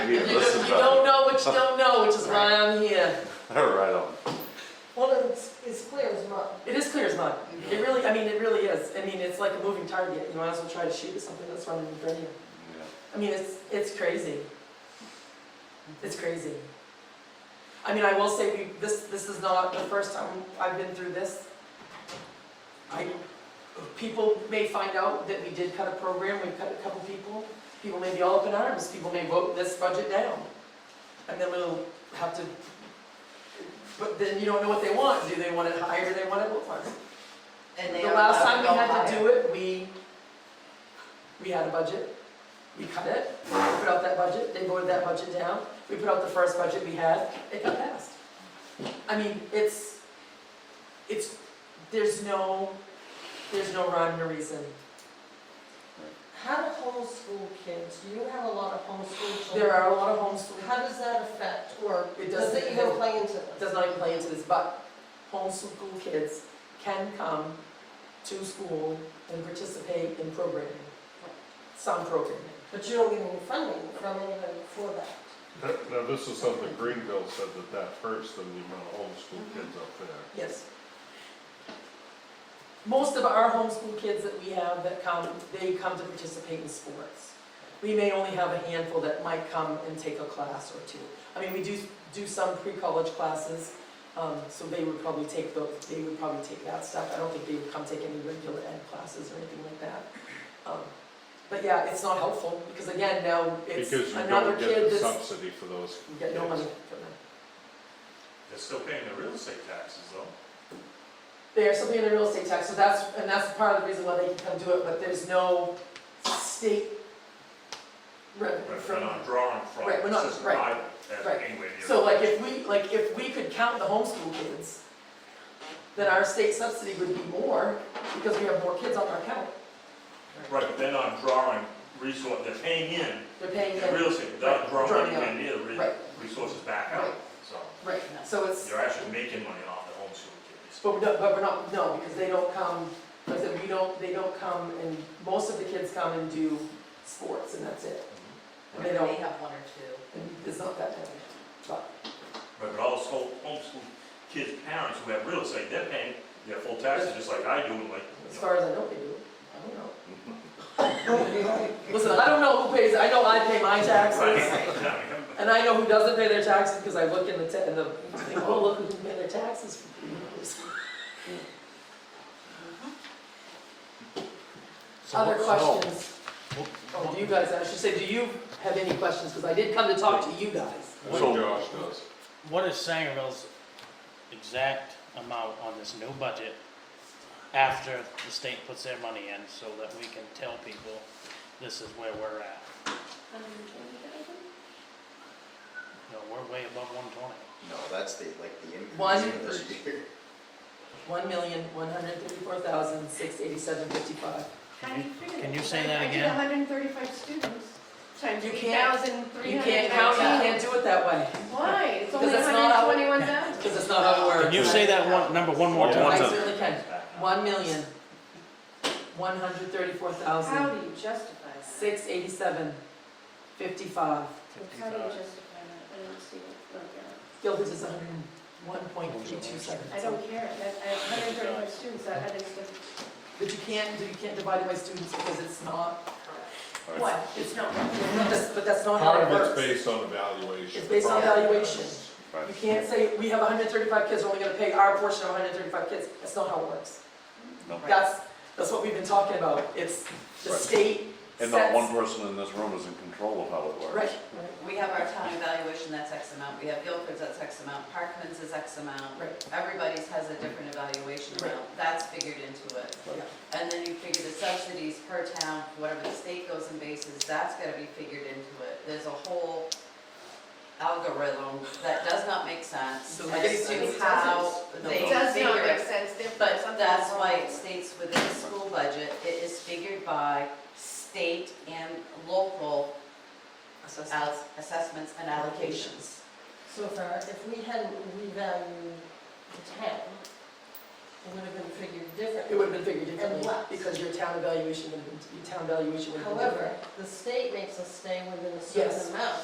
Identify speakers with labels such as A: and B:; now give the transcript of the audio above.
A: much don't know, which is why I'm here.
B: Right on.
C: Well, it's, it's clear as mud.
A: It is clear as mud. It really, I mean, it really is. I mean, it's like a moving target. You might as well try to shoot at something that's running in front of you.
B: Yeah.
A: I mean, it's, it's crazy. It's crazy. I mean, I will say, we, this, this is not the first time I've been through this. I, people may find out that we did cut a program, we cut a couple people. People may be all up in arms, people may vote this budget down. And then we'll have to, but then you don't know what they want. Do they want it higher, do they want it lower?
C: And
A: The last time we had to do it, we, we had a budget, we cut it, we put out that budget, they voted that budget down, we put out the first budget we had, it got passed. I mean, it's, it's, there's no, there's no rhyme or reason.
C: How do homeschool kids, you have a lot of homeschool children.
A: There are a lot of homeschool,
C: How does that affect, or
A: It
C: does
A: doesn't-
C: it even play into this?
A: it does not even play into this, but homeschool kids can come to school and participate in programming, some programming.
C: But you don't get any funding from anybody for that.
D: Now, now, this is something Greenville said that that hurts them, the amount of homeschool
A: Mm-hmm.
D: kids up there.
A: Yes. Most of our homeschool kids that we have that come, they come to participate in sports. We may only have a handful that might come and take a class or two. I mean, we do, do some pre-college classes, um, so they would probably take those, they would probably take that stuff. I don't think they would come take any regular ed classes or anything like that. Um, But yeah, it's not helpful, because again, now it's
D: Because you
A: another
D: don't
A: kid
D: get the
A: that's,
D: subsidy for those.
A: we get no
D: kids.
A: money for them.
E: They're still paying their real estate taxes though.
A: They are something in the real estate tax, so that's, and that's part of the reason why they can come do it, but there's no state revenue
E: But they're
A: from.
E: not drawing from.
A: Right, we're not-
E: This isn't
A: right,
E: private, uh,
A: right.
E: anyway, the
A: So
E: other-
A: like if we, like if we could count the homeschool kids, then our state subsidy would be more, because we have more kids on our account.
E: Right, but they're not drawing resource, they're paying in
A: They're paying
E: the
A: in,
E: real estate, they're not
A: Right,
E: drawing
A: drawing
E: anywhere near the
A: right.
E: re- resources back out.
A: Right.
E: So
A: right, so it's,
E: you're actually making money off the homeschool kids.
A: but we're not, but we're not, no, because they don't come, like I said, we don't, they don't come and, most of the kids come and do sports and that's it.
F: Mm-hmm.
A: And they don't,
C: have one or two.
A: and it's not that many, but,
E: Right, But all those whole homeschool kids' parents who have real estate, they're paying their full taxes just like I do, and like,
A: as
E: you know,
A: far as I know, they do, I don't know. Listen, I don't know who pays, I know I pay my taxes,
E: right?
A: and I know who doesn't pay their taxes, because I look in the, ta- in the, they all look who can pay their taxes for three years. Other questions? Oh, do you guys, I should say, do you have any questions, because I did come to talk to you guys.
D: That's what Josh does.
G: What is Sangerville's exact amount on this new budget after the state puts their money in so that we can tell people this is where we're at? No, we're way above one twenty.
H: No, that's the, like, the
A: One.
H: increase in this year.
A: One million, one hundred thirty-four thousand, six eighty-seven fifty-five.
G: Can you- can you say that again?
I: I did 135 students times
A: You can't-
I: 8,319.
A: You can't count, you can't do it that way,
I: Why? It's only
A: Because it's not how-
I: 121,000.
A: because it's not how it works.
G: Can you say that one, number one more
D: Yeah.
A: I
G: time?
A: certainly can, one million, one hundred thirty-four thousand,
I: How do you justify that?
A: Six eighty-seven, fifty-five.
I: How do you justify that? I don't see it broken out.
A: Gilbert is hundred and one point three two seven.
I: I don't care. That- I have 135 students. I I just,
A: But you can't, you can't divide it by students because it's not.
D: Right.
A: What? It's not. That's- But that's not how
D: Part
A: it
D: of it's
A: works.
D: based on evaluation.
A: It's based on
D: Part of it
A: evaluation.
D: is.
A: You can't say, we have hundred and thirty-five kids, we're only gonna pay our portion of hundred and thirty-five kids. That's not how it works.
B: No.
A: That's, that's what we've been talking about. It's the
B: Right.
A: state
B: And not one
A: sets.
B: person in this room is in control of how it works.
A: Right.
F: We have our town evaluation, that's X amount, we have Guilford's, that's X amount, Parkman's is X amount.
A: Right.
F: Everybody's has a different evaluation amount, that's figured into it.
A: Yeah.
F: And then you figure the subsidies per town, whatever the state goes in bases, that's gotta be figured into it. There's a whole algorithm that does not make sense
A: So like
F: as
A: students'
F: to how
A: subsidies.
F: they
I: it
F: figure
I: does not make
F: it.
I: sense. They're-
F: But
I: something's
F: that's why
I: wrong.
F: it states within the school budget, it is figured by state and local
A: Assessment.
F: as- assessments and allocations.
C: So if our, if we hadn't revalued the town, it would have been figured
A: It
C: differently.
A: would have been figured differently
C: less.
A: because your town evaluation would have been, your town valuation would have been different.
C: However, the state makes us stay within a
A: Yes.
C: certain amount.